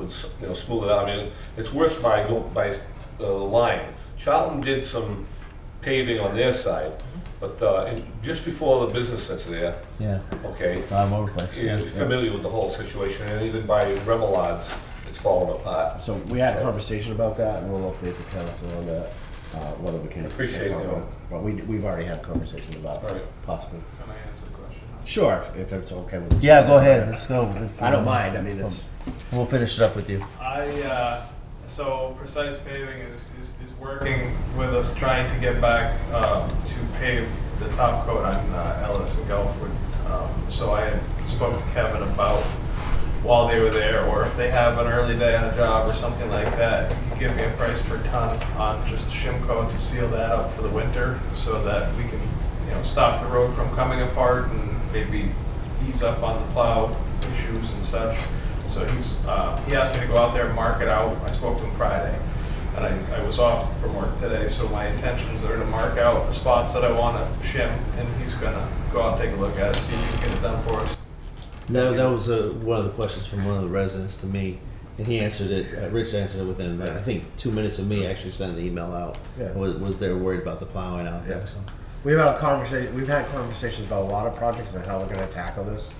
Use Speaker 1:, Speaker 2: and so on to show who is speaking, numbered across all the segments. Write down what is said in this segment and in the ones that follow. Speaker 1: s- you know, smooth it out. I mean, it's worse by, go- by the line. Charlton did some paving on their side, but uh, in- just before the business that's there,
Speaker 2: Yeah,
Speaker 1: okay,
Speaker 2: I'm over place,
Speaker 1: you're
Speaker 2: yeah.
Speaker 1: familiar with the whole situation, and even by Remelads, it's falling apart.
Speaker 3: So we had a conversation about that, and we'll update the council on that, uh, whether we can.
Speaker 1: Appreciate it.
Speaker 3: But we, we've already had a conversation about
Speaker 1: All right.
Speaker 3: possibly.
Speaker 4: Can I ask a question?
Speaker 3: Sure, if- if it's okay with you.
Speaker 2: Yeah, go ahead, let's go. Um,
Speaker 3: I don't mind, I mean, it's,
Speaker 2: We'll finish it up with you.
Speaker 4: I, uh, so Precise Paving is, is, is working with us trying to get back, uh, to pave the top coat on uh, Ellis and Gulfwood. Um, So I had spoke to Kevin about while they were there, or if they have an early day on a job or something like that, if you could give me a price per ton on just shimco to seal that up for the winter so that we can, you know, stop the road from coming apart and maybe ease up on the plow issues and such. So he's, uh, he asked me to go out there and mark it out. I spoke to him Friday. And I, I was off from work today, so my intentions are to mark out the spots that I want to shim, and he's gonna go out and take a look at it, see if he can get it done for us.
Speaker 2: No, that was uh, one of the questions from one of the residents to me, and he answered it, uh, Rich answered it within, like, I think, two minutes of me actually sending the email out.
Speaker 3: Yeah.
Speaker 2: Was, was they were worried about the plowing out there,
Speaker 3: Yeah.
Speaker 2: so.
Speaker 3: we've had a conversation, we've had conversations about a lot of projects and how we're gonna tackle this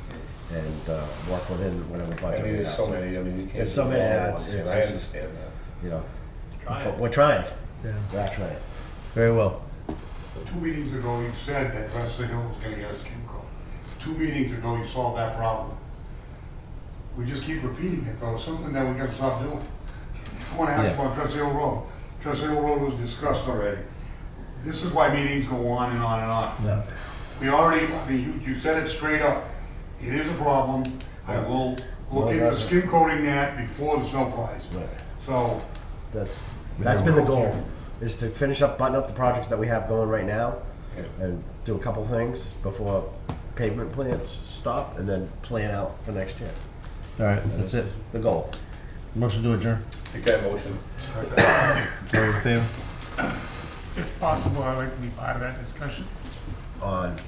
Speaker 3: and, uh, work within whatever
Speaker 1: I
Speaker 3: budget
Speaker 1: mean,
Speaker 3: we
Speaker 1: there's so
Speaker 3: have.
Speaker 1: many, I mean, you can't.
Speaker 3: There's so
Speaker 1: do
Speaker 3: many
Speaker 1: all at
Speaker 3: ads,
Speaker 1: once, and
Speaker 3: it's
Speaker 1: I
Speaker 3: just-
Speaker 1: understand that.
Speaker 3: You know,
Speaker 4: Trying.
Speaker 3: but we're trying,
Speaker 2: Yeah,
Speaker 3: we're not trying.
Speaker 2: very well.
Speaker 5: Two meetings ago, you said that Wesley Hill was gonna get us Kimco. Two meetings ago, you solved that problem. We just keep repeating it, though, It's something that we gotta stop doing. I wanna ask
Speaker 2: Yeah.
Speaker 5: about Dress Hill Road. Dress Hill Road was discussed already. This is why meetings go on and on and on.
Speaker 2: Yeah.
Speaker 5: We already, I mean, you, you said it straight up. It is a problem. I will
Speaker 3: No,
Speaker 5: look into
Speaker 3: that's-
Speaker 5: skim coating that before the snow flies.
Speaker 3: Right.
Speaker 5: So,
Speaker 3: That's, that's been the goal, is to finish up, button up the projects that we have going right now
Speaker 1: Yeah.
Speaker 3: and do a couple things before pavement plans stop and then plan out for next year.
Speaker 2: All right, that's it,
Speaker 3: The goal.
Speaker 2: motion to adjourn,
Speaker 1: Take that motion.
Speaker 2: all in favor?
Speaker 6: If possible, I'd like to be part of that discussion,
Speaker 3: On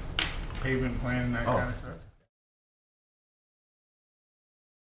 Speaker 6: pavement plan, that kind of stuff.